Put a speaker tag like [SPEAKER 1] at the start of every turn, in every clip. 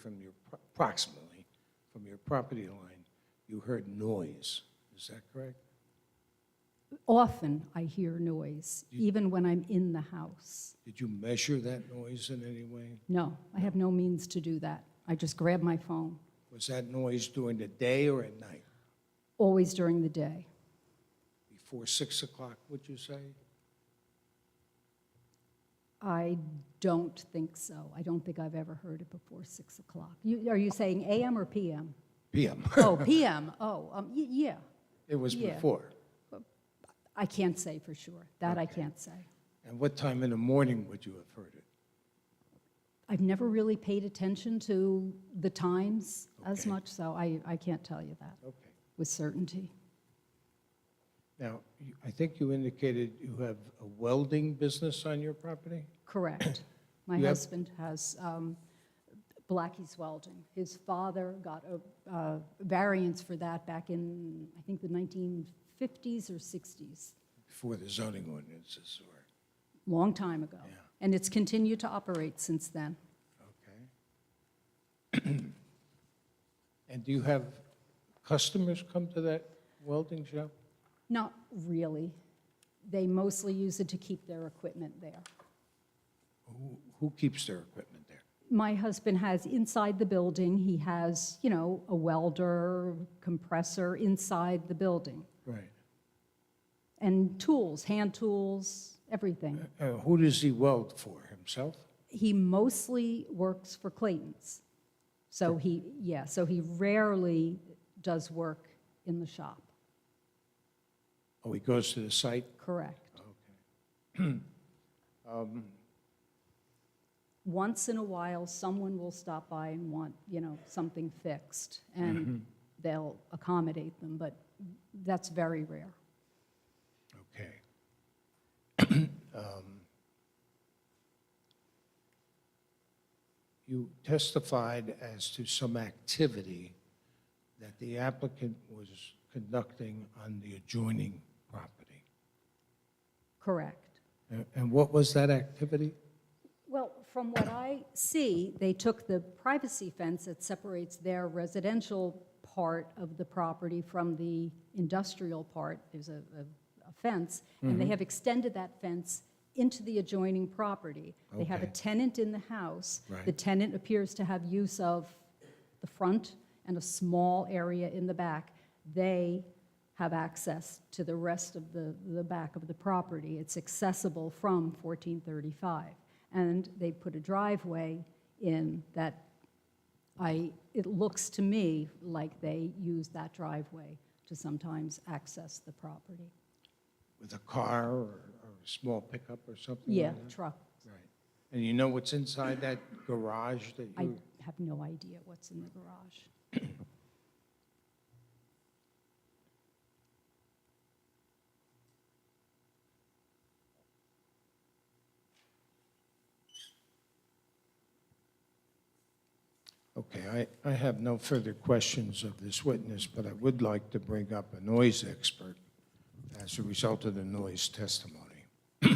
[SPEAKER 1] from your, pro- approximately, from your property line, you heard noise. Is that correct?
[SPEAKER 2] Often I hear noise, even when I'm in the house.
[SPEAKER 1] Did you measure that noise in any way?
[SPEAKER 2] No, I have no means to do that. I just grab my phone,
[SPEAKER 1] Was that noise during the day or at night?
[SPEAKER 2] always during the day.
[SPEAKER 1] Before 6 o'clock, would you say?
[SPEAKER 2] I don't think so. I don't think I've ever heard it before 6 o'clock. You, are you saying AM or PM?
[SPEAKER 1] PM.
[SPEAKER 2] Oh, PM, oh, um, y- yeah.
[SPEAKER 1] It was
[SPEAKER 2] Yeah.
[SPEAKER 1] before.
[SPEAKER 2] I can't say for sure. That I can't say.
[SPEAKER 1] And what time in the morning would you have heard it?
[SPEAKER 2] I've never really paid attention to the times as
[SPEAKER 1] Okay.
[SPEAKER 2] much, so I, I can't tell you that
[SPEAKER 1] Okay.
[SPEAKER 2] with certainty.
[SPEAKER 1] Now, you- I think you indicated you have a welding business on your property?
[SPEAKER 2] Correct. My
[SPEAKER 1] You have-
[SPEAKER 2] husband has um, Blackie's Welding. His father got a uh, variance for that back in, I think, the 1950s or 60s,
[SPEAKER 1] Before the zoning ordinances were,
[SPEAKER 2] long time ago.
[SPEAKER 1] Yeah.
[SPEAKER 2] And it's continued to operate since then.
[SPEAKER 1] okay? And do you have customers come to that welding shop?
[SPEAKER 2] Not really. They mostly use it to keep their equipment there.
[SPEAKER 1] Who who keeps their equipment there?
[SPEAKER 2] My husband has inside the building, he has, you know, a welder, compressor inside the building,
[SPEAKER 1] Right.
[SPEAKER 2] and tools, hand tools, everything.
[SPEAKER 1] Uh, Who does he weld for, himself?
[SPEAKER 2] He mostly works for Clayton's. So he, yeah, so he rarely does work in the shop,
[SPEAKER 1] Oh, he goes to the site?
[SPEAKER 2] correct.
[SPEAKER 1] Okay.
[SPEAKER 2] Once in a while, someone will stop by and want, you know, something fixed, and they'll accommodate them, but that's very rare.
[SPEAKER 1] Okay. Um, You testified as to some activity that the applicant was conducting on the adjoining property.
[SPEAKER 2] Correct.
[SPEAKER 1] A- And what was that activity?
[SPEAKER 2] Well, from what I see, they took the privacy fence that separates their residential part of the property from the industrial part, there's a, a- a fence, and they have extended that fence into the adjoining property. They have a
[SPEAKER 1] Okay.
[SPEAKER 2] tenant in the house. The
[SPEAKER 1] Right.
[SPEAKER 2] tenant appears to have use of the front and a small area in the back. They have access to the rest of the, the back of the property. It's accessible from 1435. And they put a driveway in that I, it looks to me like they use that driveway to sometimes access the property.
[SPEAKER 1] With a car or or a small pickup or something? like
[SPEAKER 2] Yeah,
[SPEAKER 1] that?
[SPEAKER 2] truck.
[SPEAKER 1] Right. And you know what's inside that garage that
[SPEAKER 2] I
[SPEAKER 1] you?
[SPEAKER 2] have no idea what's in the garage.
[SPEAKER 1] Okay, I, I have no further questions of this witness, but I would like to bring up a noise expert as a result of the noise testimony.
[SPEAKER 3] I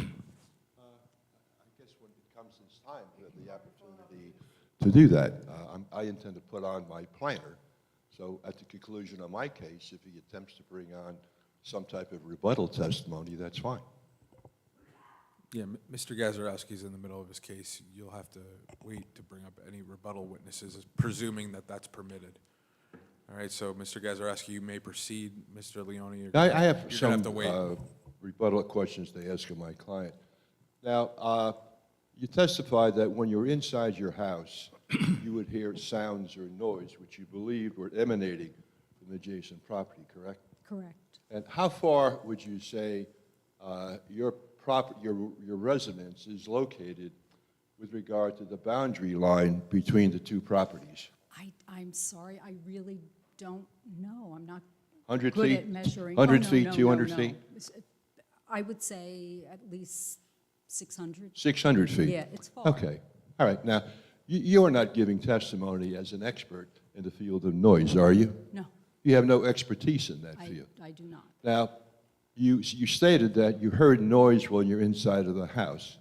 [SPEAKER 3] guess when it comes this time, we have the opportunity to do that. Uh, I'm- I intend to put on my planner, so at the conclusion of my case, if he attempts to bring on some type of rebuttal testimony, that's fine.
[SPEAKER 4] Yeah, M- Mr. Gazarovski's in the middle of his case. You'll have to wait to bring up any rebuttal witnesses, presuming that that's permitted. All right, so Mr. Gazarovski, you may proceed. Mr. Leone, you're
[SPEAKER 3] I
[SPEAKER 4] gonna-
[SPEAKER 3] I have
[SPEAKER 4] you're gonna
[SPEAKER 3] some
[SPEAKER 4] have to wait.
[SPEAKER 3] uh, rebuttal questions to ask of my client. Now, uh, you testified that when you're inside your house, you would hear sounds or noise which you believed were emanating from the adjacent property, correct?
[SPEAKER 2] Correct.
[SPEAKER 3] And how far would you say uh, your prop, your, your residence is located with regard to the boundary line between the two properties?
[SPEAKER 2] I, I'm sorry, I really don't know. I'm not
[SPEAKER 3] 100
[SPEAKER 2] good
[SPEAKER 3] feet?
[SPEAKER 2] at measuring. Oh,
[SPEAKER 3] 100
[SPEAKER 2] no,
[SPEAKER 3] feet,
[SPEAKER 2] no, no,
[SPEAKER 3] 200
[SPEAKER 2] no.
[SPEAKER 3] feet?
[SPEAKER 2] It's, uh, I would say at least 600.
[SPEAKER 3] 600 feet?
[SPEAKER 2] Yeah, it's far.
[SPEAKER 3] Okay, all right. Now, you, you are not giving testimony as an expert in the field of noise, are you?
[SPEAKER 2] No,
[SPEAKER 3] You have no expertise in that
[SPEAKER 2] I,
[SPEAKER 3] field.
[SPEAKER 2] I do not.
[SPEAKER 3] Now, you, you stated that you heard noise when you're inside of the house.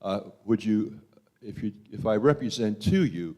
[SPEAKER 3] Uh, Would you, if you, if I represent to you